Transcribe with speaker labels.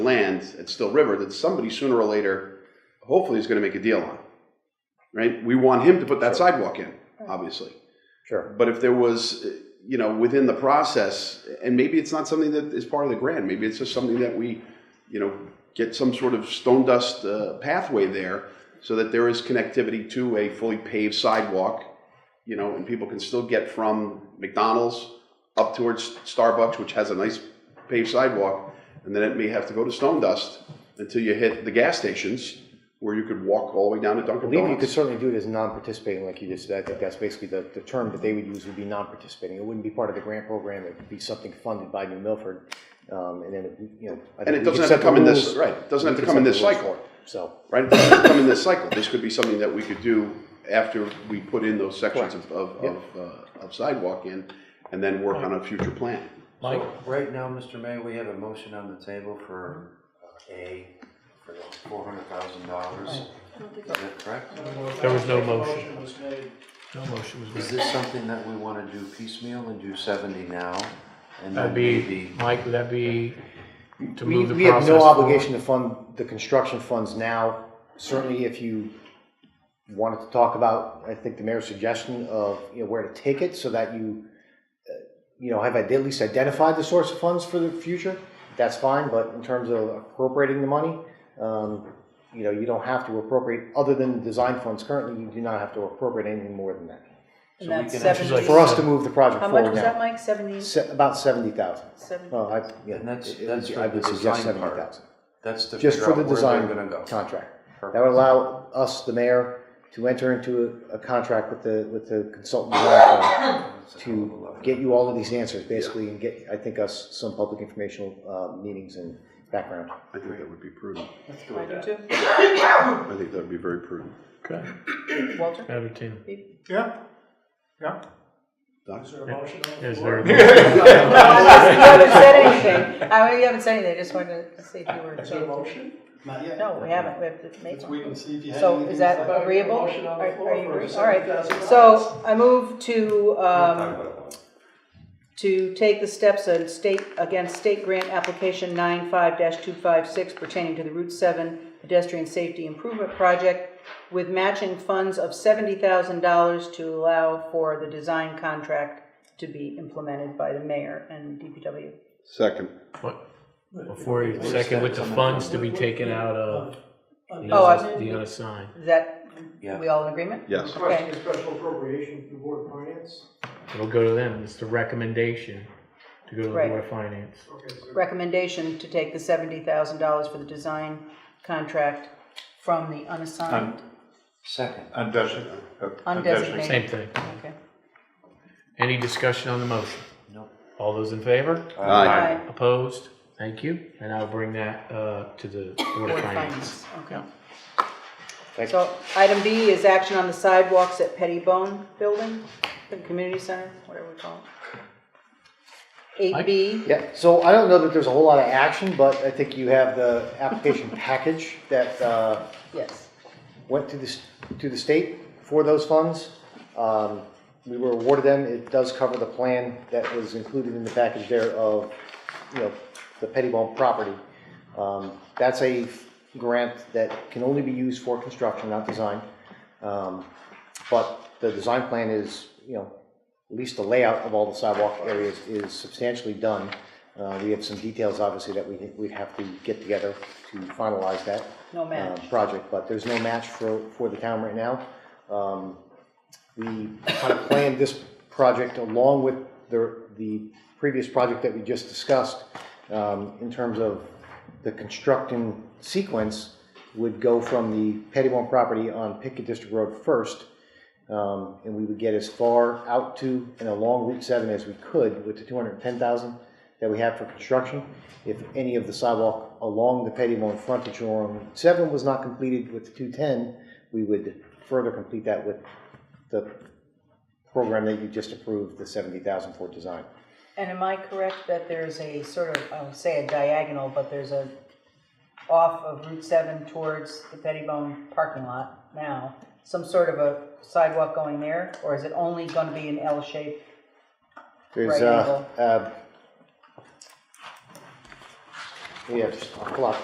Speaker 1: land at Still River that somebody sooner or later, hopefully, is going to make a deal on. Right? We want him to put that sidewalk in, obviously.
Speaker 2: Sure.
Speaker 1: But if there was, uh, you know, within the process, and maybe it's not something that is part of the grant, maybe it's just something that we, you know, get some sort of stone dust uh, pathway there so that there is connectivity to a fully paved sidewalk, you know, and people can still get from McDonald's up towards Starbucks, which has a nice paved sidewalk, and then it may have to go to stone dust until you hit the gas stations where you could walk all the way down to
Speaker 2: I
Speaker 1: Dunkin'
Speaker 2: believe you could
Speaker 1: Donuts.
Speaker 2: certainly do it as non-participating, like you just said. I think that's basically the, the term that they would use would be non-participating. It wouldn't be part of the grant program. It would be something funded by New Milford. Um, and then, it- you know. I think
Speaker 1: And it doesn't
Speaker 2: we could
Speaker 1: have
Speaker 2: set
Speaker 1: to
Speaker 2: the
Speaker 1: come in this,
Speaker 2: rules-
Speaker 1: right, it doesn't
Speaker 2: we
Speaker 1: have to
Speaker 2: could
Speaker 1: come in
Speaker 2: set
Speaker 1: this
Speaker 2: the rules
Speaker 1: cycle.
Speaker 2: for it. So,
Speaker 1: right? It doesn't come in this cycle. This could be something that we could do after we put in those sections of, of, of, uh, of sidewalk in and then work on a future plan.
Speaker 3: Mike?
Speaker 4: So, Right now, Mr. Mayor, we have a motion on the table for uh, A, for the four hundred thousand dollars. Is that correct?
Speaker 3: There was no motion.
Speaker 5: Motion was made.
Speaker 3: No motion was
Speaker 4: Is
Speaker 3: made.
Speaker 4: this something that we want to do piecemeal and do seventy now? and then
Speaker 3: That'd be,
Speaker 4: maybe-
Speaker 3: Mike, would that be to
Speaker 2: we,
Speaker 3: move the process?
Speaker 2: we have no
Speaker 3: forward?
Speaker 2: obligation to fund the construction funds now. Certainly if you wanted to talk about, I think the mayor's suggestion of, you know, where to take it so that you, uh, you know, have at least identified the source of funds for the future, that's fine, but in terms of appropriating the money, um, you know, you don't have to appropriate, other than the design funds currently, you do not have to appropriate anything more than that.
Speaker 4: So
Speaker 6: And
Speaker 4: we
Speaker 6: that's
Speaker 4: can actually-
Speaker 6: seventy.
Speaker 2: For us to move the project
Speaker 6: How much
Speaker 2: forward
Speaker 6: was that,
Speaker 2: now.
Speaker 6: Mike? Seventy,
Speaker 2: Se- About seventy thousand.
Speaker 6: seventy?
Speaker 2: Oh, I, yeah.
Speaker 4: And that's-
Speaker 2: it- it-
Speaker 4: that's for
Speaker 2: I would
Speaker 4: the
Speaker 2: suggest
Speaker 4: design part.
Speaker 2: 70,000.
Speaker 4: That's to
Speaker 2: Just
Speaker 4: figure
Speaker 2: for
Speaker 4: out
Speaker 2: the
Speaker 4: where
Speaker 2: design
Speaker 4: they're gonna go.
Speaker 2: contract.
Speaker 4: Perfect.
Speaker 2: That would allow us, the mayor, to enter into a, a contract with the, with the consultant design firm
Speaker 4: That's a hell of a
Speaker 2: to
Speaker 4: lot.
Speaker 2: get you all of these answers, basically, and get, I think, us some public informational, uh, meetings and background.
Speaker 1: I think that would be prudent.
Speaker 4: Let's do
Speaker 6: I
Speaker 4: it.
Speaker 6: do
Speaker 1: I think that would be very prudent.
Speaker 3: Okay,
Speaker 6: too. Walter?
Speaker 3: entertain.
Speaker 5: Yeah, yeah.
Speaker 1: Doc?
Speaker 5: Is there a motion on the
Speaker 3: Is
Speaker 5: floor?
Speaker 3: there
Speaker 6: I wasn't- You haven't said anything. I, you haven't said anything. I just wanted to see if you were.
Speaker 5: Is there a motion?
Speaker 7: Not yet.
Speaker 6: No, we haven't. We have to make
Speaker 7: Let's wait
Speaker 6: one.
Speaker 7: and see if you have
Speaker 6: So
Speaker 7: anything
Speaker 6: is
Speaker 7: to
Speaker 6: that
Speaker 7: say.
Speaker 6: agreeable?
Speaker 5: Motion on the
Speaker 6: Are- are
Speaker 5: floor
Speaker 6: you
Speaker 5: for
Speaker 6: agree- All right.
Speaker 5: $70,000.
Speaker 6: So I move to, um, to take the steps of state, against state grant application 95-256 pertaining to the Route 7 pedestrian safety improvement project with matching funds of $70,000 to allow for the design contract to be implemented by the mayor and DPW.
Speaker 1: Second.
Speaker 3: what- Before you second, with the funds to be taken out of the
Speaker 6: Oh, I-
Speaker 3: unass- the unassigned.
Speaker 6: Is that,
Speaker 4: Yeah.
Speaker 6: we all in agreement?
Speaker 1: Yes.
Speaker 5: Requesting a special appropriation from Board of Finance.
Speaker 3: It'll go to them. It's the recommendation to go to the
Speaker 6: Right.
Speaker 3: Board of Finance.
Speaker 5: Okay, so
Speaker 6: Recommendation to take the $70,000 for the design contract from the unassigned,
Speaker 4: Second.
Speaker 6: undesignated.
Speaker 3: Same thing.
Speaker 6: Okay.
Speaker 3: Any discussion on the motion?
Speaker 4: No.
Speaker 3: All those in favor?
Speaker 1: Aye.
Speaker 6: Aye.
Speaker 3: Opposed? Thank you. And I'll bring that uh, to the Board of
Speaker 6: Board of
Speaker 3: Finance.
Speaker 6: Finance, okay.
Speaker 2: Thank
Speaker 6: So item B is action on the sidewalks at Pettibone Building, the community center, whatever we call it.
Speaker 3: Mike?
Speaker 6: Eight B,
Speaker 2: Yeah, so I don't know that there's a whole lot of action, but I think you have the application package that, uh,
Speaker 6: yes.
Speaker 2: went to the, s- to the state for those funds. Um, We were awarded them, it does cover the plan that was included in the package there of, you know, the Pettibone property. Um, That's a f- grant that can only be used for construction, not design. Um, But the design plan is, you know, at least the layout of all the sidewalk areas is substantially done. Uh, We have some details, obviously, that we, we'd have to get together to finalize that
Speaker 6: No match.
Speaker 2: uh, project, but there's no match for, for the town right now. Um, We kind of planned this project along with the, the previous project that we just discussed um, in terms of the constructing sequence would go from the Pettibone property on Pickett District Road first, um, and we would get as far out to and along Route 7 as we could with the 210,000 that we have for construction. If any of the sidewalk along the Pettymore frontage or on Route 7 was not completed with the 210, we would further complete that with the program that you just approved, the 70,000 for design.
Speaker 6: And am I correct that there's a sort of, I would say a diagonal, but there's a off of Route seven towards the Pettibone parking lot now, some sort of a sidewalk going there, or is it only gonna be an L shape?
Speaker 2: There's
Speaker 6: Right
Speaker 2: uh, uh, We have a lot